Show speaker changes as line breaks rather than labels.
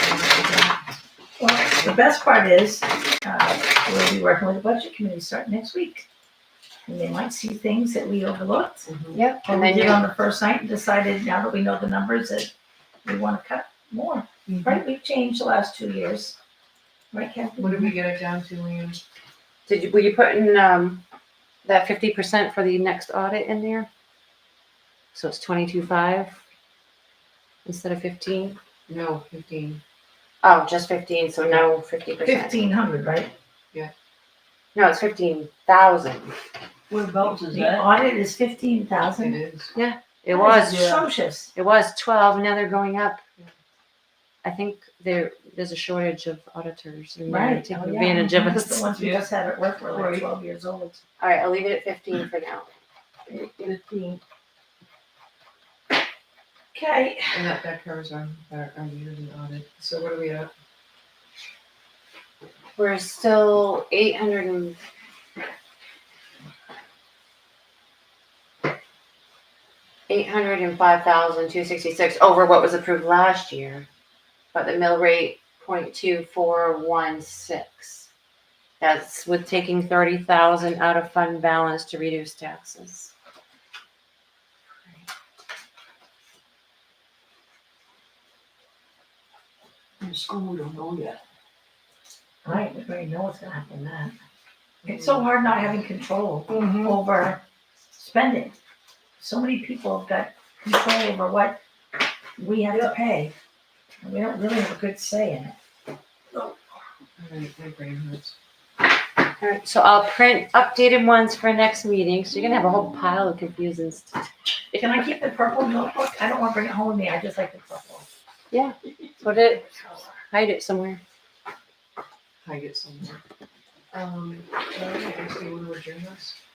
the best part is, uh, we'll be working with the budget committee starting next week. And they might see things that we overlooked,
Yep,
or
and
we
then
did
you,
on the first night and decided now that we know the numbers that we wanna cut more.
Mhm.
Right, we've changed the last two years. Right, Kathy?
What did we get it down to, Liam?
did you, were you putting, um, that fifty percent for the next audit in there? So it's twenty-two five instead of fifteen?
No, fifteen.
Oh, just fifteen, so no fifty percent.
Fifteen hundred, right?
No, it's fifteen thousand.
Whereabouts is
The
that?
audit is fifteen
It
thousand.
is.
It was,
yeah.
Atrocious.
it was twelve, now they're going up. I think there, there's a shortage of auditors and they're
Right.
taking
Oh, yeah.
advantage of
The
us.
ones we just had at work were like
Right.
twelve years old.
All right, I'll leave it at fifteen for now.
Fifteen.
Okay,
And that, that covers our, our, our years in audit. So what are we at?
We're still eight hundred and. Eight hundred and five thousand two sixty-six over what was approved last year, but the mill rate point two four one six. That's with taking thirty thousand out of fund balance to reduce taxes.
The school don't know yet.
all right, we already know what's gonna happen with that. It's so hard not having control over spending. So many people have got control over what we have to pay. And we don't really have a good say in it.
All right, my brain hurts.
All right, so I'll print updated ones for next meeting, so you're gonna have a whole pile of confusing stuff.
Can I keep the purple notebook? I don't wanna bring it home with me, I just like the purple.
Put it, hide it somewhere.
I get somewhere. Um, so I guess they would adjourn us.